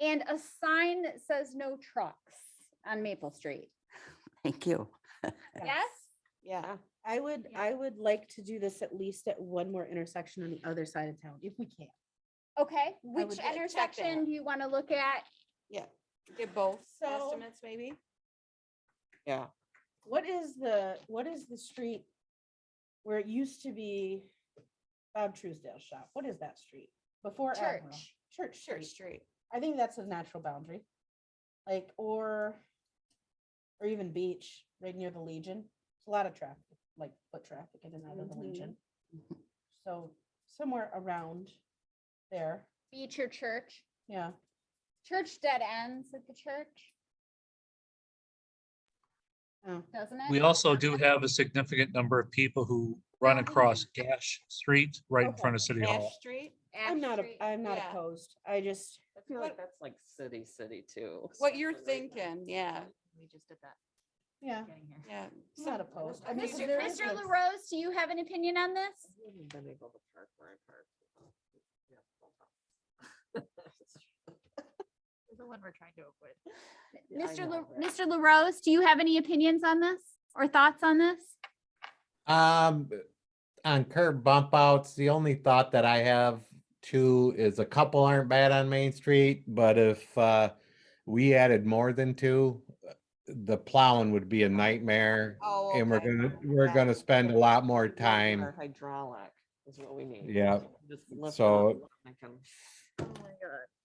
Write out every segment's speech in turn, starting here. And a sign that says no trucks on Maple Street. Thank you. Yes? Yeah, I would, Yeah. I would like to do this at least at one more intersection on the other side of town, if we can. Okay, would which get- check that. intersection do you want to look at? Did both So- estimates maybe? Yeah, What is the, what is the street where it used to be Bob Truesdale's shop? What is that street? Before Admiral. Church. Church Church Street. Street. I think that's a natural boundary. Like, or, or even beach, right near the Legion. It's a lot of traffic, like foot traffic in and out of the Legion. So somewhere around there, Beach or church? yeah. Church dead ends at the church, Oh, doesn't it? We also do have a significant number of people who run across Gash Street right in front of City Hall. Ash Street. I'm Ash not, a- Street. I'm not yeah. opposed. I just, I feel What- like that's like city, city too. What you're especially right now. thinking, yeah, We just did that yeah, getting here. yeah. I'm not opposed. I mean, Mr. there is Mr. like- LaRose, do you have an opinion on this? I haven't been able to park where I park. Yeah, You're The one we're trying to avoid. yeah, I Mr. know, La- but- Mr. LaRose, do you have any opinions on this or thoughts on this? Um, on curb bump outs, the only thought that I have too is a couple aren't bad on Main Street, but if, uh, we added more than two, uh, the plowing would be a nightmare. Oh, And we're okay. gonna, we're Yeah. gonna spend a lot more We need more time. Hydraulic is what we need. Yeah, Just lift it up so- and I can-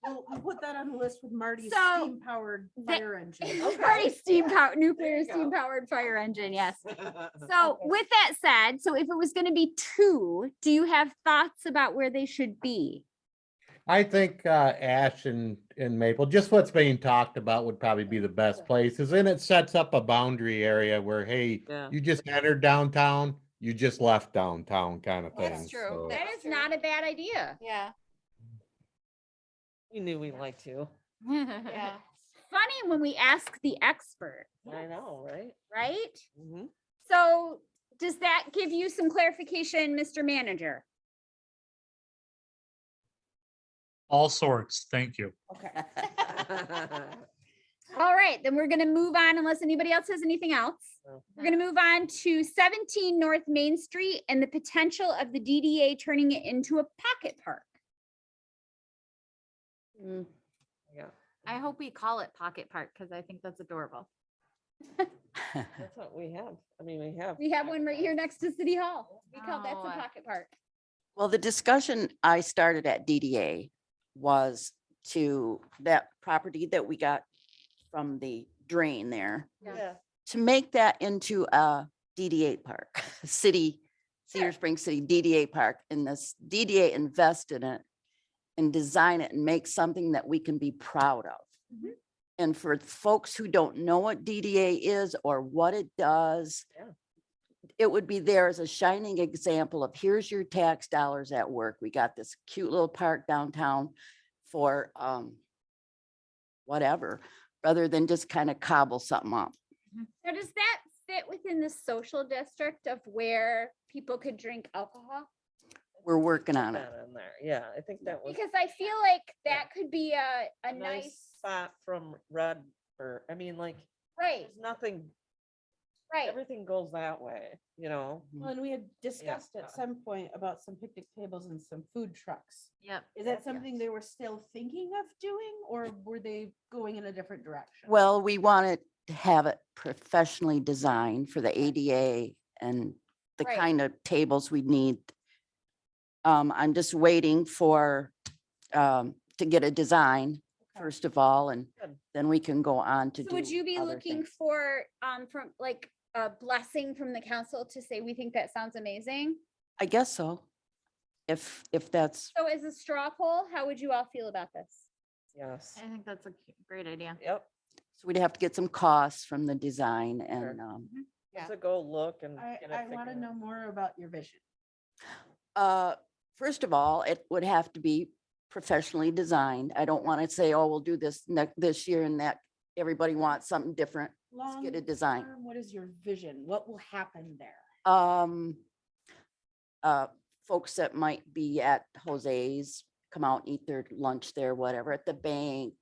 we'll we'll put that on the list with Marty's So- steam powered Th- fire engine. Very steam powered, nuclear you go. steam powered fire engine, yes. Uh, So with that said, so if it was gonna be two, do you have thoughts about where they should be? I think, uh, Ash and, and Maple, just what's being talked about would probably be the best places. And it sets up a boundary area where, hey, Yeah. you just entered downtown, you just left downtown kind of thing. That's true. so- That- That is not a bad idea. Yeah, We knew we liked you. yeah. Funny when we ask the expert, I know, right? right? Mhm. So does that give you some clarification, Mr. Manager? All sorts, thank you. Okay. All right, then we're gonna move on unless anybody else has anything else. No. We're gonna move on to seventeen North Main Street and the potential of the DDA turning it into a pocket park. Mm. Yeah, I hope we call it Pocket Park because I think that's adorable. that's what we have. I mean, we have. We have one right here next to City Hall. We call that Oh. Wow. the pocket park. Well, the discussion I started at DDA was to that property that we got from the drain there, Yeah. to make that into a DDA park, city, Cedar Sure. Springs City DDA park, and this DDA invest in it and design it and make something that we can be proud of. Mhm. And for folks who don't know what DDA is or what it does, Yeah. it would be there as a shining example of here's your tax dollars at work. We got this cute little park downtown for um whatever, rather than just kind of cobble something up. So does that fit within the social district of where people could drink alcohol? We're working on it. That in there. Yeah, I think that was. Because I feel like that could be a, a nice, Spot from Red, or, I mean, like, right, there's nothing, right. everything goes that way, you know? Well, and we had discussed uh, at some point about some picnic tables and some food trucks. Yep. Is that Yes. something they were still thinking of doing or were they going in a different direction? Well, we wanted to have it professionally designed for the ADA and the Right. kind of tables we need. Um, I'm just waiting for, um, to get a design, Okay. first of all, and Good. then we can go on to So do. would you be other looking things. for, um, from like a blessing from the council to say, we think that sounds amazing? I guess so. If, if that's, So as a straw poll, how would you all feel about this? Yes. I think that's a cu- great idea. Yep. so we'd have to get some costs from the design and, um, Yeah. So go look and. I, get it I want to figured know out. more about your vision. Uh, first of all, it would have to be professionally designed. I don't want to say, oh, we'll do this next, this year and that. Everybody wants something different. Let's get a Long design. term, What is your vision? What will happen there? Um, uh, folks that might be at Jose's, come out, eat their lunch there, whatever, at the bank